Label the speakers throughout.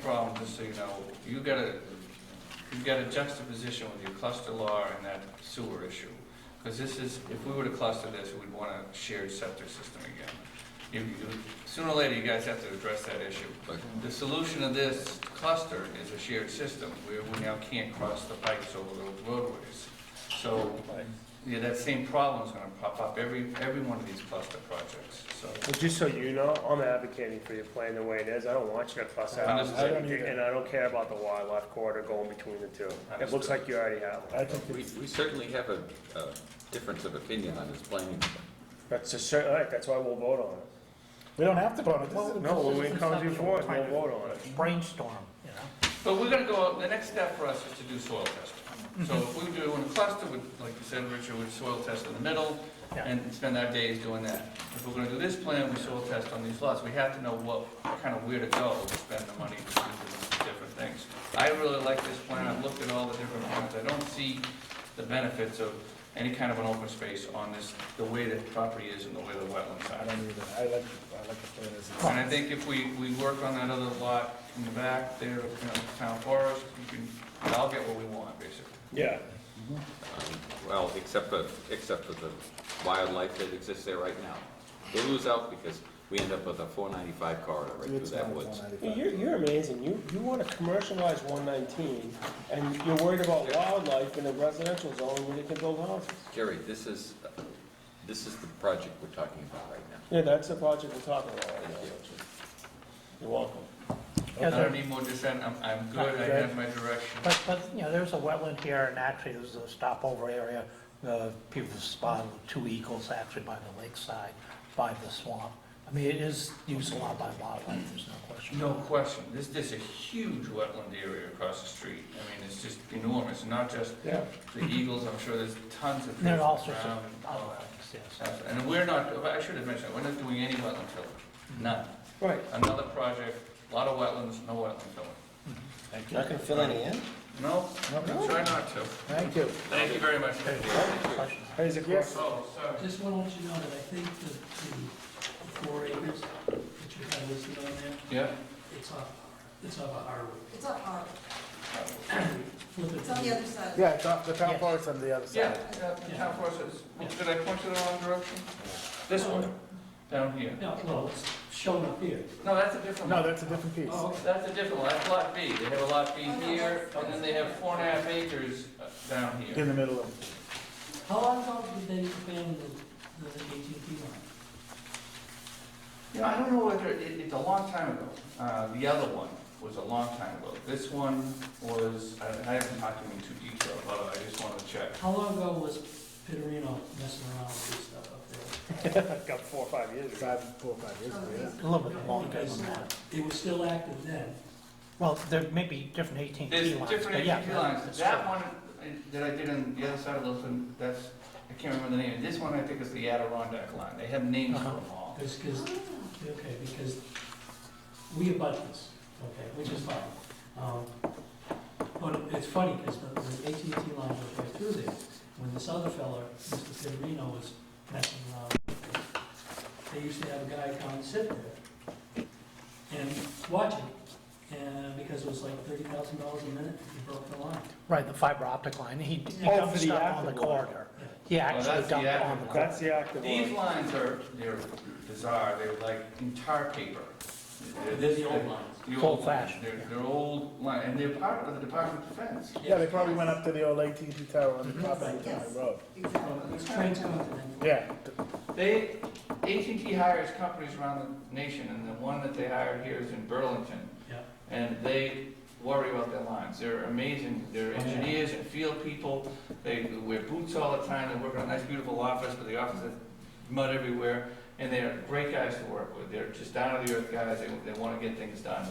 Speaker 1: problem, just so you know, you got a, you got a juxtaposition with your cluster law and that sewer issue. Because this is, if we were to cluster this, we'd want a shared septic system again. You, you, sooner or later, you guys have to address that issue.
Speaker 2: Okay.
Speaker 1: The solution of this cluster is a shared system, where we now can't cross the pipes over the roadways. So, yeah, that same problem's gonna pop up every, every one of these cluster projects, so.
Speaker 3: Well, just so you know, I'm advocating for your plan the way it is. I don't want you to fuss out houses or
Speaker 4: I don't
Speaker 3: anything,
Speaker 4: either.
Speaker 3: and I don't care about the wildlife corridor going between the two. It looks like you already have one.
Speaker 4: I think
Speaker 2: We,
Speaker 4: it's,
Speaker 2: we certainly have a, a difference of opinion on this um, planning.
Speaker 3: That's a cer, all right, that's why we'll vote on it.
Speaker 4: we don't have to vote on it.
Speaker 5: Well,
Speaker 3: No, when
Speaker 5: this
Speaker 3: we
Speaker 5: is
Speaker 3: come to you for it,
Speaker 5: conceptual,
Speaker 3: we'll
Speaker 5: kind
Speaker 3: vote on it.
Speaker 5: of Brainstorm, you know?
Speaker 1: But we're gonna go, out- the next step for us is to do soil testing. So if we do in a cluster, with, like you said, Richard, we soil test in the middle
Speaker 5: Yeah.
Speaker 1: and spend our days doing that. If we're gonna do this plan, we soil test on these lots. We have to know what, kind of where to go to spend the money to do these different things. I really like this plan. I've looked at all the different plans. I don't see the benefits of any kind of an open space on this, the way the property is and the way the wetlands
Speaker 4: I
Speaker 1: are.
Speaker 4: don't either, I like, I like the plan as it is.
Speaker 1: And I think if we, we work on that other lot in the back there, you know, town forest, you can, I'll get what we want, basically.
Speaker 3: Yeah.
Speaker 2: Um, Well, except for, except for the wildlife that exists there right now. They lose out because we end up with a four ninety-five corridor right through
Speaker 4: It's
Speaker 2: that
Speaker 4: not a
Speaker 2: woods.
Speaker 4: 495.
Speaker 3: You're, you're amazing. You, you wanna commercialize one nineteen, and you're worried about wildlife in a residential zone where you can build houses.
Speaker 2: Jerry, this is, this is the project we're talking about right now.
Speaker 3: Yeah, that's the project we're talking about right
Speaker 2: Thank you.
Speaker 3: now. You're welcome.
Speaker 1: I
Speaker 5: Yeah,
Speaker 1: don't
Speaker 5: there-
Speaker 1: need more dissent, I'm, I'm good, I have my direction.
Speaker 5: But, but, you know, there's a wetland here, and actually, there's a stopover area. The people spawned two eagles actually by the lakeside, by the swamp. I mean, it is used a lot by wildlife, there's no question.
Speaker 1: No question, this, this is a huge wetland area across the street, I mean, it's just enormous, not just
Speaker 3: Yeah.
Speaker 1: the eagles, I'm sure there's tons of.
Speaker 5: There are
Speaker 1: things
Speaker 5: all sorts of
Speaker 1: around and all
Speaker 5: other
Speaker 1: that.
Speaker 5: things, yes.
Speaker 1: Absolutely. And we're not, I should have mentioned, we're not doing any wetland filling, none.
Speaker 3: Right.
Speaker 1: Another project, a lot of wetlands, no wetland filling.
Speaker 4: Thank you.
Speaker 6: You're not gonna fill any in?
Speaker 1: No, I'm trying not to.
Speaker 4: Thank you.
Speaker 1: Thank you very much.
Speaker 5: Questions?
Speaker 3: Raise a question.
Speaker 1: Oh, sorry.
Speaker 7: Just want to let you know that I think that the four acres that you have listed on there,
Speaker 1: Yeah.
Speaker 7: it's off, it's off of Harwood.
Speaker 8: It's up our,
Speaker 7: Flip it
Speaker 8: it's on the other side.
Speaker 4: Yeah, it's off- the town
Speaker 5: Yes.
Speaker 4: forest on the other
Speaker 1: Yeah,
Speaker 4: side.
Speaker 1: yeah, the town forest is, did I point you the wrong direction? This one, down here.
Speaker 7: No, well, it's shown up here.
Speaker 1: No, that's a different
Speaker 4: No,
Speaker 1: one.
Speaker 4: that's a different piece.
Speaker 7: Oh, okay.
Speaker 1: That's a different one, that's lot B. They have a lot B
Speaker 8: Oh, no,
Speaker 1: here,
Speaker 8: that's-
Speaker 1: and then they have four and a half acres uh, down here.
Speaker 4: In the middle of,
Speaker 7: How long ago did they expand the, the AT&T line?
Speaker 1: You know, I don't know whether, it, it's a long time ago. Uh, the other one was a long time ago. This one was, I I haven't talked to him in too detail about it, I just wanted to check.
Speaker 7: How long ago was Pitterino messing around with this stuff up there?
Speaker 3: Got four or five years ago.
Speaker 4: five, four, five years ago, yeah.
Speaker 5: A little bit longer than that.
Speaker 7: It was still active then.
Speaker 5: Well, there may be different AT&T lines.
Speaker 1: There's different
Speaker 5: but yeah,
Speaker 1: ATV lines.
Speaker 5: that's
Speaker 1: That
Speaker 5: true.
Speaker 1: one I- that I did on the other side of those, and that's, I can't remember the name. This one I think is the Adirondack line. They have names for them all.
Speaker 7: Because, because, okay, because we abut this, okay, which is fine. Um, But it's funny, because the the AT&T line goes right through there. When this other fella, Mr. Federino, was messing around, with it, they used to have a guy come and sit there and watch it, and because it was like thirty thousand dollars a minute, he broke the line.
Speaker 5: Right, the fiber optic line, he he
Speaker 3: Oh,
Speaker 5: dumped
Speaker 3: for the
Speaker 5: stuff on the
Speaker 3: active one.
Speaker 5: corridor. He
Speaker 1: Oh, that's
Speaker 5: actually
Speaker 1: the
Speaker 5: dumped
Speaker 1: active
Speaker 5: on the
Speaker 1: one.
Speaker 5: corridor.
Speaker 3: That's the active one.
Speaker 1: These lines are, they're bizarre. They're like entire paper. They're this-
Speaker 7: The old lines.
Speaker 1: the old
Speaker 5: Old fashioned,
Speaker 1: lines. They're, they're old line, and they're part of the Department of Defense.
Speaker 4: Yeah, they probably went up to the old AT&T tower on the top of the
Speaker 8: Yes.
Speaker 4: road.
Speaker 7: Well,
Speaker 8: Exactly.
Speaker 7: It's transcontinental.
Speaker 4: Yeah,
Speaker 1: They, AT&T hires companies around the nation, and the one that they hired here is in Burlington.
Speaker 7: Yeah.
Speaker 1: And they worry about their lines. They're amazing. They're
Speaker 7: Okay.
Speaker 1: engineers and field people. They wear boots all the time. They work in a nice, beautiful office, but the office has mud everywhere. And they're great guys to work with. They're just down-to-the-earth guys. They, they want to get things done.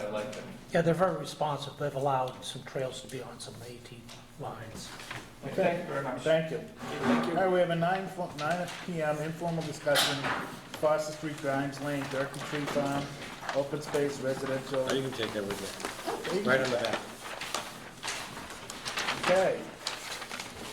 Speaker 1: I like them.
Speaker 5: Yeah, they're very responsive, they've allowed some trails to be on some AT lines.
Speaker 1: Thank you very much.
Speaker 4: thank you. All right, we have a nine, fo- nine PM informal discussion, Foster Street, Grimes Lane, Durkey Tree Farm, open space residential.
Speaker 6: you can take that with
Speaker 4: Okay.
Speaker 6: Right on the back.
Speaker 4: Okay.